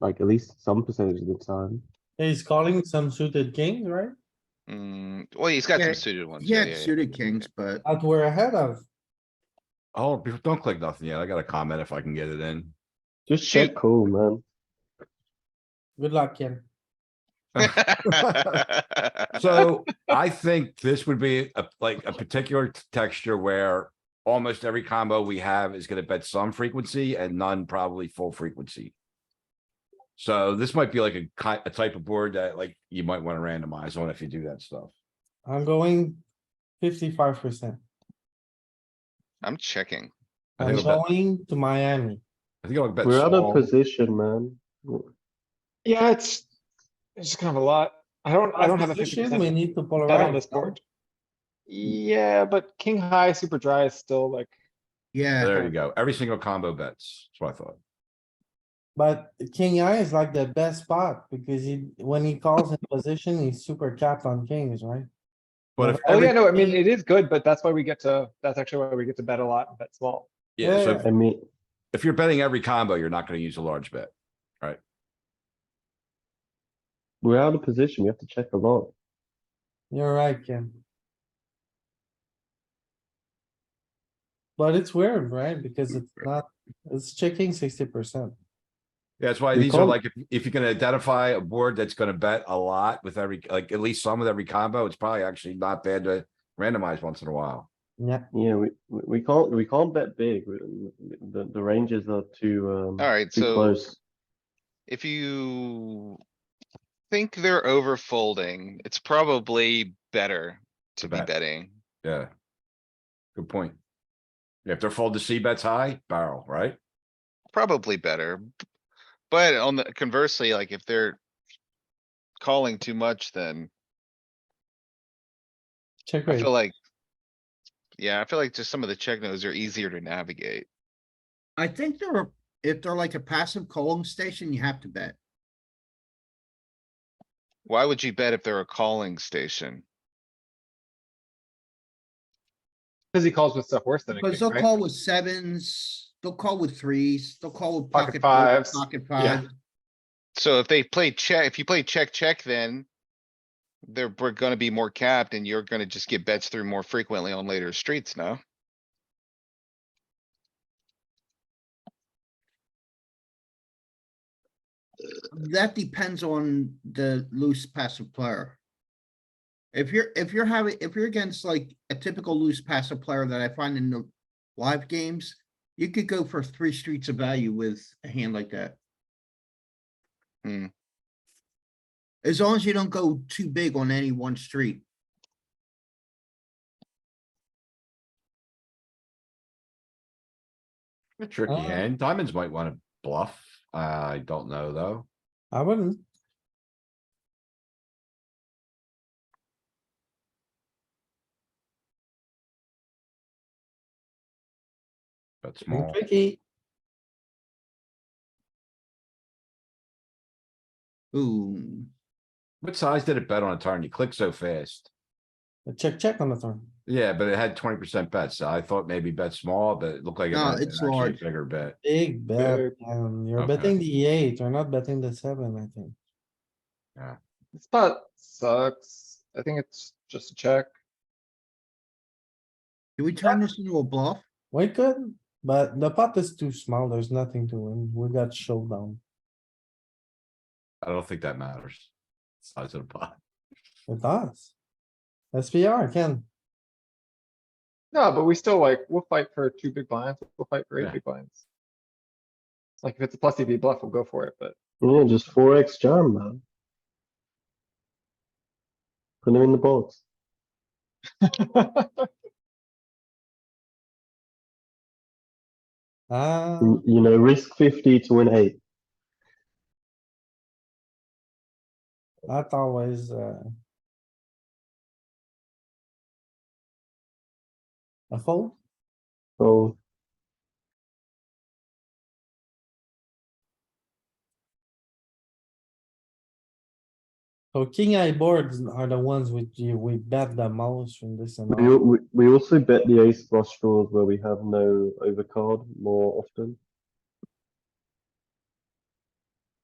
like at least some percentage of the time. He's calling some suited kings, right? Mm, well, he's got Yeah, some suited ones. He had suited kings, but That we're ahead of. Oh, be- don't click nothing yet. I got a comment if I can get it in. Just check Shoot. call, man. Good luck, Ken. So I think this would be a, like a particular t- texture where almost every combo we have is gonna bet some frequency and none probably full frequency. So this might be like a ki- a type of board that like you might wanna randomize on if you do that stuff. I'm going fifty-five percent. I'm checking. I think I'm I'll bet- going to Miami. I think I'll bet We're out of small. position, man. W- Yeah, it's, it's kind of a lot. I don't, I don't have a fifty Position, We percent need to bet on this polarize. no? board. Yeah, but king high super dry is still like, yeah, There you go. Every single combo bets. That's what I thought. But king eye is like the best spot because he, when he calls in position, he's super capped on kings, right? But if Oh, oh every, yeah, no, I mean, it is good, but that's why we get to, that's actually why we get to bet a lot and bet small. yeah, so yeah. if- I mean, if you're betting every combo, you're not gonna use a large bet. we're out of position. We have to check a lot. You're right, Ken. But it's weird, right? Because it's not, it's checking sixty percent. Yeah, That's why You these are can't- like, if- if you can identify a board that's gonna bet a lot with every, like, at least some with every combo, it's probably actually not bad to randomize once in a while. Yeah, Yeah, we, we we can't, we can't bet big. We- The, the ranges are too, um, Alright, too so close. if you think they're over folding, it's probably better to be bet. betting. Yeah. Good point. Yeah, If they're fold to C bets high, barrel, right? Probably better. b- But on the conversely, like if they're calling too much, then check I raise. feel like yeah, I feel like just some of the check nodes are easier to navigate. I think there are, if they're like a passive calling station, you have to bet. Why would you bet if they're a calling station? Cause he calls with stuff worse than a Because king, they'll right? call with sevens, they'll call with threes, they'll call with pocket Pocket fives, fives. pocket Yeah. fives. So if they play check, if you play check, check, then they're, we're gonna be more capped and you're gonna just get bets through more frequently on later streets now. That depends on the loose passive player. If you're, if you're having, if you're against like a typical loose passive player that I find in the live games, you could go for three streets of value with a hand like that. Hmm. As long as you don't go too big on any one street. A tricky Uh. hand. Diamonds might wanna bluff. I don't know, though. I wouldn't. Bet Be small. Tricky. Ooh, What size did it bet on a turn? You click so fast. A Check, check on the turn. Yeah, but it had twenty percent bets. so I thought maybe bet small, but it looked like. it No, had an it's actually large. Bigger bet. Big bet, Big. um, you're Okay. betting the eight, you're not betting the seven, I think. This spot sucks. I think it's just a check. do we turn this into a bluff? We could, but the pot is too small, there's nothing to win, we got showdown. I don't think that matters. Size of the pot. It does. SPR, Ken, No, but we still like, we'll fight for two big blinds, we'll fight for Yeah. eight big blinds. Like if it's a plus EV bluff, we'll go for it, but Yeah, just four X jam, man. Put him in the box. ah, You you know, risk fifty to win eight. that's always, uh. A fold, So so king eye boards are the ones which you, we bet the most from this we, amount. al- we, we also bet the ace flush draws where we have no overcard more often.